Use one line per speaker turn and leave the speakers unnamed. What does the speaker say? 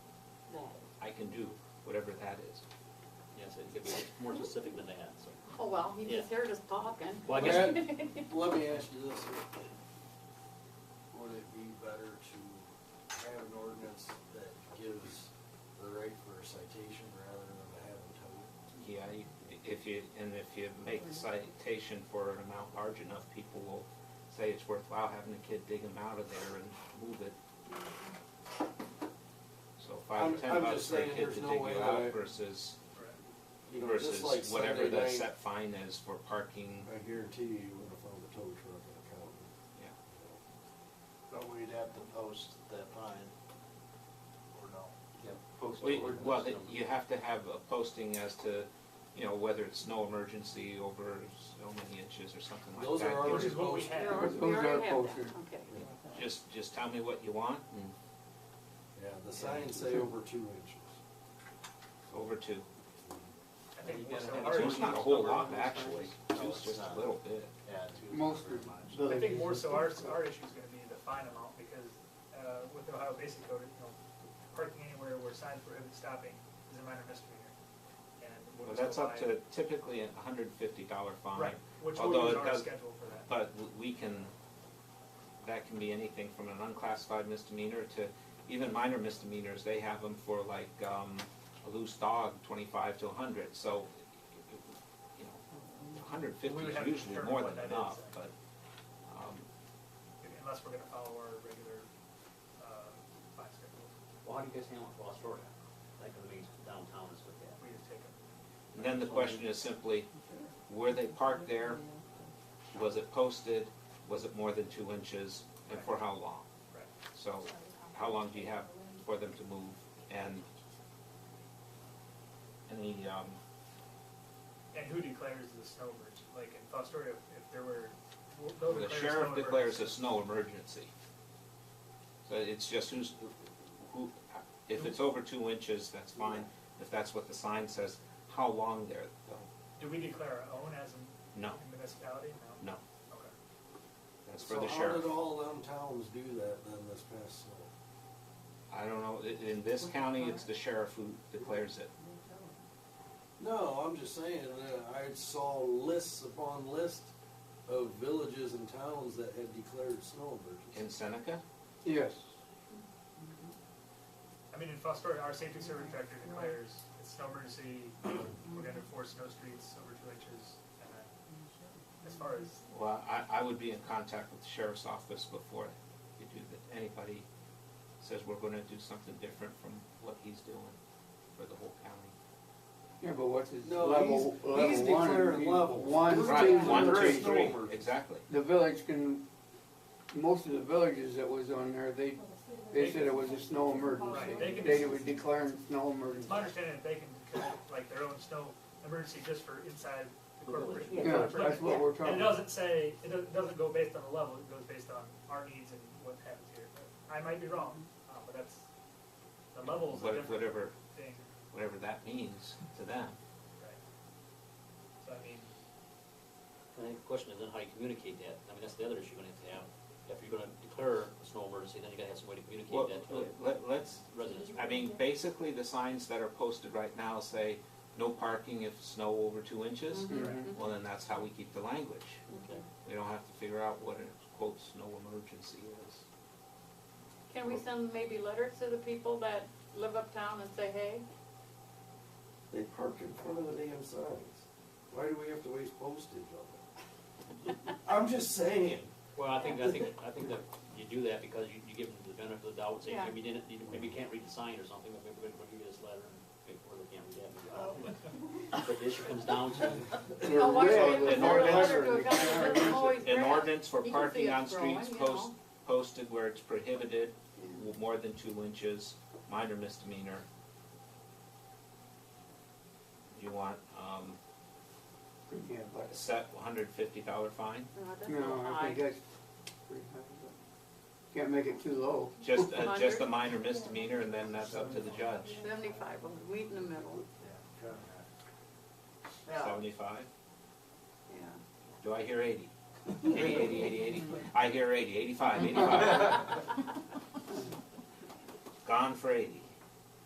can do whatever that is.
Yes, it could be more specific than that, so.
Oh, well, he
Yeah.
was here just talking.
Well, I guess,
Let me ask you this, would it be better to have an ordinance that gives the right for a citation rather than having towed?
Yeah, you- if you, and if you make the citation for an amount large enough, people will say it's worthwhile having the kid dig them out of there and move it. So five
I'm-
or ten
I'm
bucks
just
for a
saying
kid
there's
to
no
dig
way
you
that I-
out versus,
You know,
versus
just like
whatever
Sunday
the
night,
set fine is for parking.
I guarantee you, you wouldn't have found a tow truck in a county.
Yeah.
But we'd have to post that fine, or no?
Yep.
Post
Well, you-
ordinance
Well, it-
number.
you have to have a posting as to, you know, whether it's no emergency over so many inches or something like that.
Those are
Give
already
us-
what we
posted.
We
had.
already- we
Those are
already have
posted.
that, okay.
Just, just tell me what you want and
Yeah, the signs say over two inches.
over to.
I think
You
most
gotta have
of ours-
two.
Two's not a whole lot, actually.
No,
Two's
it's
just a
not.
little bit.
Yeah, two.
Most
very
of-
much.
I think more so our, our issue is gonna be the fine amount, because, uh, with the Ohio Basic Code, you know, parking anywhere where signs prohibit stopping is a minor misdemeanor. And we'll
Well,
just
that's up
apply-
to typically a hundred and fifty dollar fine.
Right, which
although
will use
it
our
does-
schedule for that.
But w- we can, that can be anything from an unclassified misdemeanor to even minor misdemeanors. They have them for like, um, a loose dog, twenty-five to a hundred, so, you know, a hundred fifty
We would
is
have to
usually
determine
more
what
than
that
enough,
is.
but, um,
Unless we're gonna follow our regular, uh, fine schedule,
well, how do you guys handle Cross Florida? Like, I mean, downtown is with that.
we just take them.
and then the question is simply, were they parked there? Was it posted? Was it more than two inches? And for how long?
Right.
So how long do you have for them to move? And any, um,
And who declares the snow emergency? Like in Fostoria, if- if there were, we'll- they'll
the
declare
sheriff
snow
declares a
emergency.
snow emergency. So it's just who's, who, if it's over two inches, that's fine. If that's what the sign says, how long there, though?
Do we declare our own as a
No,
municipality? No?
no,
Okay.
that's for the
So how
sheriff.
did all them towns do that then this past snow?
I don't know, i- in this county, it's the sheriff who declares it.
No, I'm just saying, uh, I saw lists upon lists of villages and towns that had declared snow
In
emergency.
Seneca?
Yes.
I mean, in Fostoria, our safety service director declares it's snow emergency, we're gonna enforce snow streets over two inches, and then, as far as,
Well, I, I would be in contact with the sheriff's office before you do that. Anybody says we're gonna do something different from what he's doing for the whole county.
Yeah, but what's his
No,
level,
he's- he's
level one?
declaring
would be
levels.
One,
Right,
two,
One, two,
three.
three,
Snowbird.
exactly.
The village can, most of the villages that was on there, they, they said it was a snow
Right, they
emergency.
can-
They were declaring snow
it's
emergency.
my understanding that they can declare like their own snow emergency just for inside the corporate.
Yeah, that's what we're
And it
talking about.
doesn't say, it doesn't- doesn't go based on the level, it goes based on our needs and what happens here. I might be wrong, uh, but that's, the level's a
What-
different
Whatever,
thing,
whatever that means to them.
right? So I mean,
I think the question is then how you communicate that, I mean, that's the other issue you're gonna have to have. If you're gonna declare a snow emergency, then you gotta have some way to
Well,
communicate that to the
let, let's,
residents.
I mean, basically, the signs that are posted right now say, no parking if snow over two inches.
Mm-hmm.
Mhm.
Well, then that's how we keep the language.
Okay.
We don't have to figure out what a quote snow emergency is.
Can we send maybe letters to the people that live uptown and say, hey?
They parked in front of the damn signs. Why do we have to waste postage on it? I'm just saying.
Well, I think, I think, I think that you do that because you, you give them the benefit of the doubt, say,
Yeah.
maybe you didn't, you- maybe you can't read the sign or something, but maybe we're gonna give you this letter, and maybe- or they can't read that, maybe, I don't know. But the issue comes down to,
They're
Oh, why don't
red,
we
they're
send a letter
leopard,
to a
they
guy
can't
that
read
lives
it.
in Lloyd's
An
Grant?
ordinance for
You can see
parking
it
on
growing,
streets
you
post,
know?
posted where it's prohibited, w- more than two inches, minor misdemeanor. You want, um,
You can't buy
a
it.
set one hundred fifty dollar fine?
No, Oh, that's
No,
not
I
high.
think that's pretty high, but can't make it too low.
Just, uh, just a minor misdemeanor and then that's up to the judge.
Seventy-five, we'll meet in the middle, yeah,
Seventy-five?
yeah.
Do I hear eighty? Eighty, eighty, eighty, eighty? I hear eighty, eighty-five, eighty-five. Gone for eighty.